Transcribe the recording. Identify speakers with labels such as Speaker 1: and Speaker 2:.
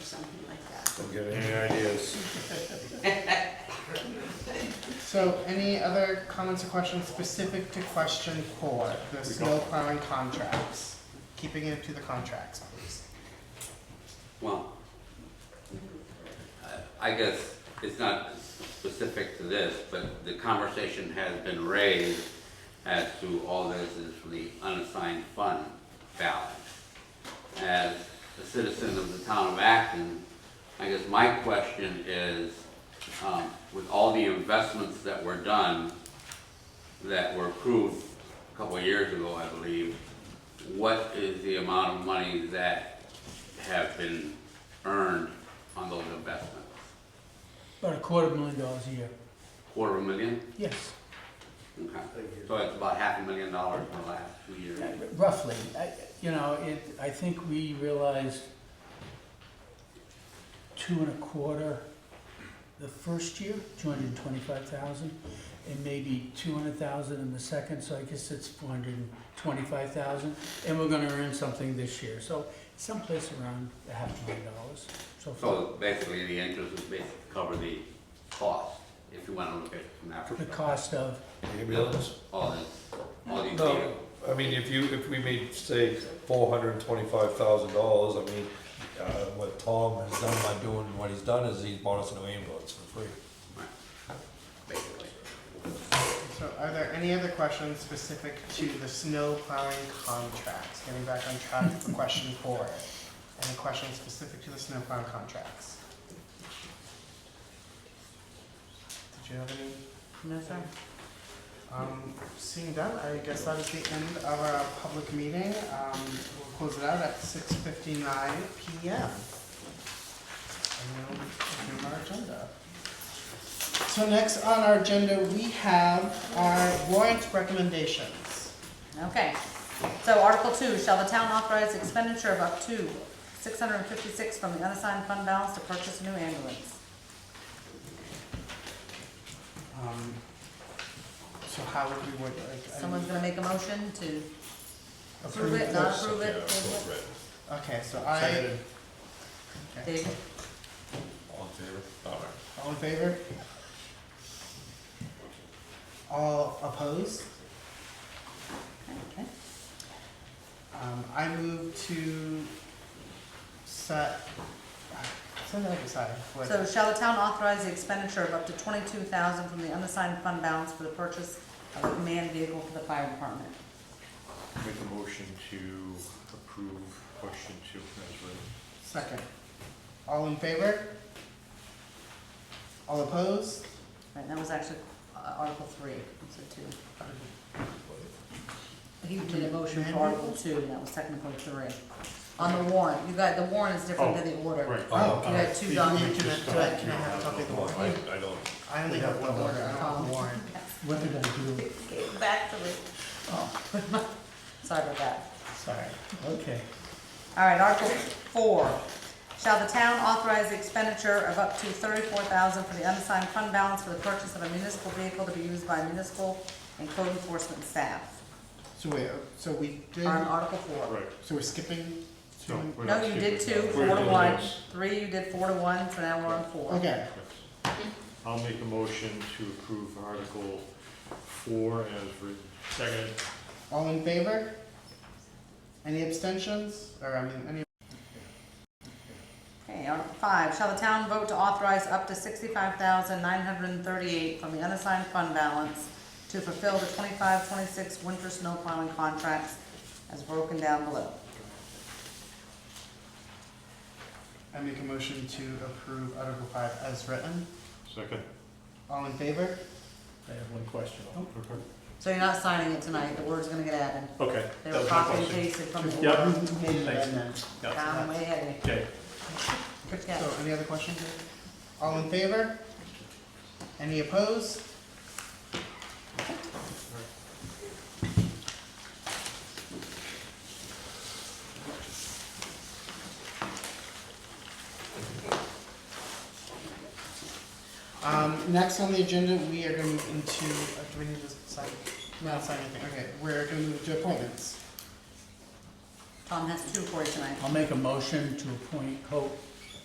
Speaker 1: something like that.
Speaker 2: Don't get any ideas.
Speaker 3: So any other comments or questions specific to question four, the snow plowing contracts? Keeping it to the contracts, please.
Speaker 4: Well, I I guess it's not specific to this, but the conversation has been raised as to all this is for the unassigned fund balance. As a citizen of the town of Acton, I guess my question is, um, with all the investments that were done, that were approved a couple of years ago, I believe, what is the amount of money that have been earned on those investments?
Speaker 5: About a quarter million dollars a year.
Speaker 4: Quarter of a million?
Speaker 5: Yes,
Speaker 4: Okay. So it's about half a million dollars in the last two years.
Speaker 5: roughly. I- You know, it, I think we realized two and a quarter the first year, two hundred and twenty-five thousand, and maybe two hundred thousand in the second, so I guess it's four hundred and twenty-five thousand. And we're gonna earn something this year, so someplace around a half million dollars so far.
Speaker 4: So basically, the interest is basically to cover the cost, if you want to look at it from that
Speaker 5: The
Speaker 4: perspective.
Speaker 5: cost of,
Speaker 2: Anybody else?
Speaker 4: All this, all these
Speaker 2: No.
Speaker 4: deals.
Speaker 2: I mean, if you, if we made, say, four hundred and twenty-five thousand dollars, I mean, uh, what Tom has done by doing what he's done is he's bought us a new ambulance for free.
Speaker 4: Right. Basically.
Speaker 3: So are there any other questions specific to the snow plowing contracts? Getting back on track for question four. Any questions specific to the snow plowing contracts? Did you have any?
Speaker 1: No, sir.
Speaker 3: Um, seeing that, I guess that is the end of our public meeting. Um, we'll close it out at six fifty-nine PM. And we'll resume our agenda. So next on our agenda, we have our warrant recommendations.
Speaker 1: Okay, so Article two, shall the town authorize expenditure of up to six hundred and fifty-six from the unassigned fund balance to purchase a new ambulance?
Speaker 3: Um, so how would we word, like, I-
Speaker 1: Someone's gonna make a motion to approve
Speaker 3: approve
Speaker 1: it, not
Speaker 3: this?
Speaker 1: approve it, table it?
Speaker 3: Okay, so I, okay,
Speaker 1: David,
Speaker 2: All in favor?
Speaker 3: all in favor? All opposed?
Speaker 1: okay,
Speaker 3: Um, I move to set, uh, set that aside. What-
Speaker 1: so shall the town authorize the expenditure of up to twenty-two thousand from the unassigned fund balance for the purchase of a command vehicle for the fire department?
Speaker 6: Make a motion to approve question two as written.
Speaker 3: Second. All in favor? All opposed?
Speaker 1: Right, that was actually uh, Article three, so two. He did a motion for Article two, and that was technically three. On the warrant, you got, the warrant is different than the order.
Speaker 3: Oh,
Speaker 1: You had two documents.
Speaker 3: Can I- can I- can I have a copy of the warrant?
Speaker 6: I don't.
Speaker 3: I only have one order, I don't have a warrant.
Speaker 5: what they're gonna do.
Speaker 1: Okay, Back to it. Sorry about that.
Speaker 3: Sorry.
Speaker 5: Okay.
Speaker 1: All right, Article four. Shall the town authorize the expenditure of up to thirty-four thousand for the unassigned fund balance for the purchase of a municipal vehicle to be used by municipal and code enforcement staff?
Speaker 3: So wait, uh, so we did,
Speaker 1: On Article four.
Speaker 6: Right.
Speaker 3: so we're skipping two? and-
Speaker 6: we're
Speaker 1: No,
Speaker 6: not
Speaker 1: you did two,
Speaker 6: skipping.
Speaker 1: four
Speaker 6: We're
Speaker 1: to
Speaker 6: doing
Speaker 1: one,
Speaker 6: this.
Speaker 1: three, you did four to one, so now we're on four.
Speaker 3: Okay,
Speaker 6: Yes. I'll make a motion to approve article four as written. Second.
Speaker 3: all in favor? Any abstentions? Or, I mean, any,
Speaker 1: Okay, Article five, shall the town vote to authorize up to sixty-five thousand nine hundred and thirty-eight from the unassigned fund balance to fulfill the 25-26 winter snow plowing contracts as broken down below?
Speaker 3: I make a motion to approve Article five as written.
Speaker 6: Second.
Speaker 3: All in favor? Oh,
Speaker 5: I have one question.
Speaker 1: So you're not signing it tonight, the word's gonna get added.
Speaker 6: Okay.
Speaker 1: They
Speaker 6: that
Speaker 1: were
Speaker 6: was my
Speaker 1: copied and
Speaker 6: question.
Speaker 1: pasted from the
Speaker 6: Yep.
Speaker 1: order.
Speaker 6: Thanks.
Speaker 1: Down way ahead of me.
Speaker 6: Okay.
Speaker 1: Good
Speaker 3: So
Speaker 1: catch.
Speaker 3: any other questions? All in favor? Any opposed? Um, next on the agenda, we are gonna move into, uh, do we need to sign? No, sign anything, okay, we're gonna move to appointments.
Speaker 1: Tom has two for you tonight.
Speaker 5: I'll make a motion to appoint Hope